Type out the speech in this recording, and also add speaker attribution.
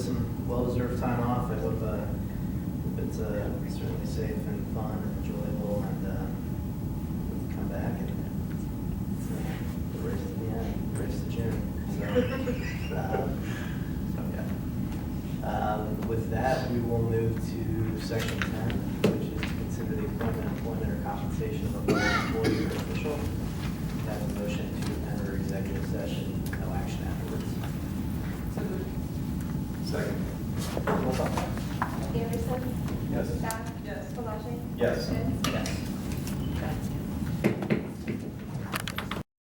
Speaker 1: well-deserved time off. I hope, uh, hope it's uh, certainly safe and fun and enjoyable, and uh, we can come back and it's, uh, the race to the end, race to June. So, um, so yeah. Um, with that, we will move to section ten, which is to consider the appointment, employment, or compensation of a public employee or official. Can I Have a motion to enter executive session, no action afterwards.
Speaker 2: So moved.
Speaker 3: Second.
Speaker 1: Roll call.
Speaker 4: Anderson?
Speaker 3: Yes.
Speaker 4: Scott?
Speaker 2: Yes.
Speaker 4: Palage?
Speaker 3: Yes.
Speaker 4: Smith?
Speaker 1: Yes.
Speaker 4: Yes.